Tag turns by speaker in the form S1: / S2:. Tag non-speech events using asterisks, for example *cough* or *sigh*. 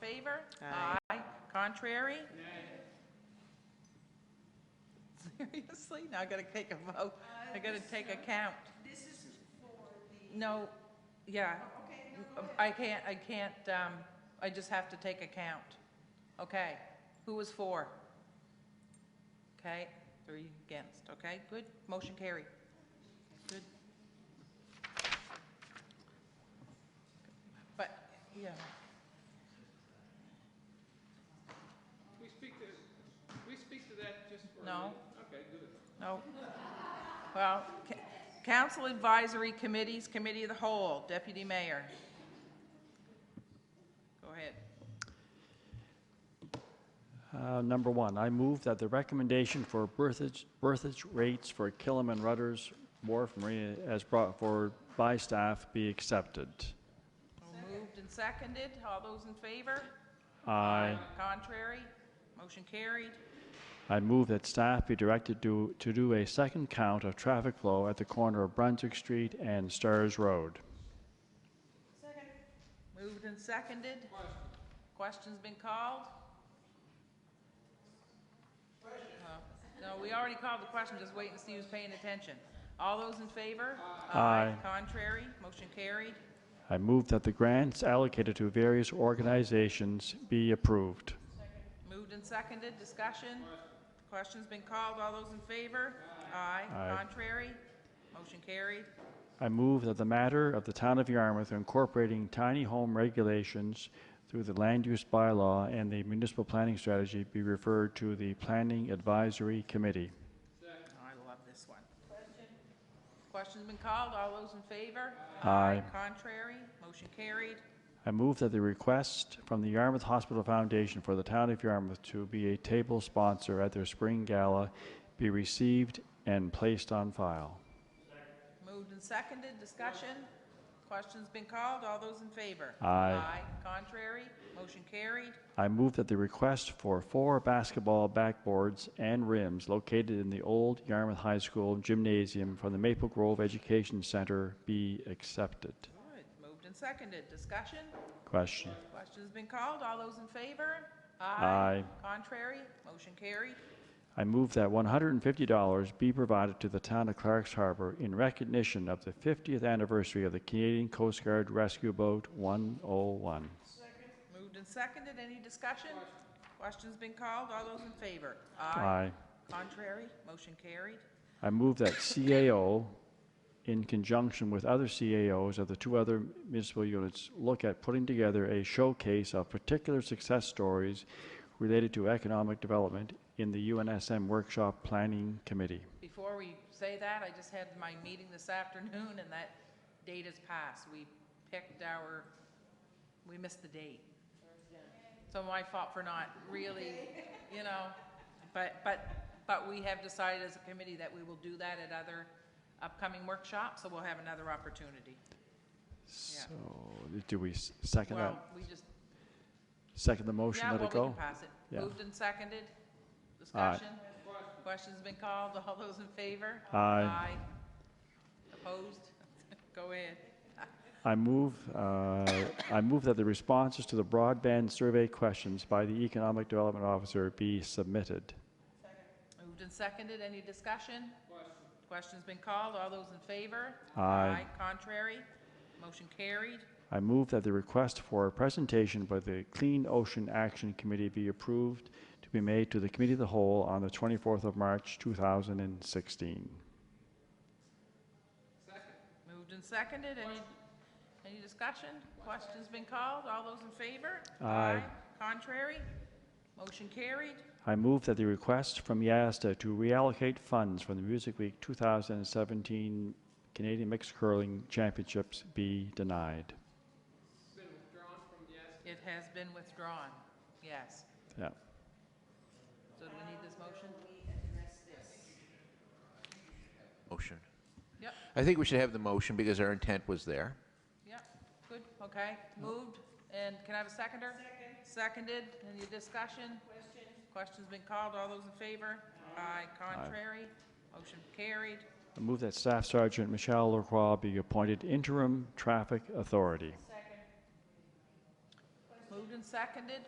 S1: favor?
S2: Aye.
S1: Contrary? *laughs* Seriously? Now I gotta take a vote. I gotta take a count. Uh, This is for the... Oh, No, yeah. I can't, I can't, um, I just have to take a count. Okay, who was for? Okay, three against, okay, good, motion carried. Good. But, yeah,
S3: We speak to, we speak to that just for a
S1: No.
S3: minute? Okay, good.
S1: no. Well, ca- council advisory committees, committee of the whole, deputy mayor. Go ahead.
S4: Uh, Number one, I move that the recommendation for berthage, berthage rates for Killam and Rutter's Wharf Marina as brought forward by staff be accepted.
S1: Moved and seconded, all those in favor?
S4: I,
S1: Contrary? Motion carried.
S4: I move that staff be directed to, to do a second count of traffic flow at the corner of Brunswick Street and Stars Road.
S1: Moved and seconded. Question's been called? Oh, No, we already called the question, just wait and see who's paying attention. All those in favor?
S4: Aye.
S1: Contrary? Motion carried.
S4: I move that the grants allocated to various organizations be approved.
S1: Moved and seconded, discussion? Question's been called, all those in favor? Aye.
S4: Aye.
S1: Contrary? Motion carried.
S4: I move that the matter of the Town of Yarmouth incorporating tiny home regulations through the land use bylaw and the municipal planning strategy be referred to the Planning Advisory Committee.
S1: I love this one. Question's been called, all those in favor?
S4: Aye.
S1: Contrary? Motion carried.
S4: I move that the request from the Yarmouth Hospital Foundation for the Town of Yarmouth to be a table sponsor at their spring gala be received and placed on file.
S1: Moved and seconded, discussion? Question's been called, all those in favor?
S4: Aye.
S1: Contrary, motion carried.
S4: I move that the request for four basketball backboards and rims located in the old Yarmouth High School gymnasium from the Maple Grove Education Center be accepted.
S1: Good, moved and seconded, discussion?
S4: Question.
S1: Question's been called, all those in favor?
S4: Aye.
S1: Contrary, motion carried.
S4: I move that $150 be provided to the town of Clark's Harbor in recognition of the 50th anniversary of the Canadian Coast Guard Rescue Boat 101.
S1: Moved and seconded, any discussion? Question's been called, all those in favor?
S4: Aye.
S1: Contrary, motion carried.
S4: I move that CAO, in conjunction with other CAOs of the two other municipal units, look at putting together a showcase of particular success stories related to economic development in the UNSM Workshop Planning Committee.
S1: Before we say that, I just had my meeting this afternoon, and that date has passed. We picked our, we missed the date. So my fault for not really, you know, but, but, but we have decided as a committee that we will do that at other upcoming workshops, so we'll have another opportunity.
S4: So, do we s- second
S1: Well,
S4: that,
S1: we just,
S4: second the motion,
S1: yeah,
S4: let
S1: well,
S4: it
S1: we can
S4: go?
S1: pass it.
S4: Yeah.
S1: Moved and seconded. Discussion? Question's been called. All those in favor?
S4: Aye.
S1: Opposed? *laughs* Go ahead.
S4: I move, uh, I move that the responses to the broadband survey questions by the Economic Development Officer be submitted.
S1: Moved and seconded, any discussion? Question's been called, all those in favor?
S4: Aye.
S1: Contrary? Motion carried.
S4: I move that the request for a presentation by the Clean Ocean Action Committee be approved to be made to the Committee of the Whole on the 24th of March, 2016.
S1: Moved and seconded, any, any discussion? Question's been called, all those in favor?
S4: Aye.
S1: Contrary? Motion carried.
S4: I move that the request from YASTA to reallocate funds from the Music Week 2017 Canadian Mixed Curling Championships be denied.
S1: It has been withdrawn, yes.
S4: Yeah.
S1: So do we need this motion?
S5: Motion.
S1: Yep,
S5: I think we should have the motion because our intent was there.
S1: yep, good, okay, moved, and can I have a seconder? Second. Seconded, any discussion? Question. Question's been called, all those in favor? Aye. Contrary? Motion carried.
S4: I move that Staff Sergeant Michelle Lacroix be appointed interim traffic authority.
S1: Moved and seconded,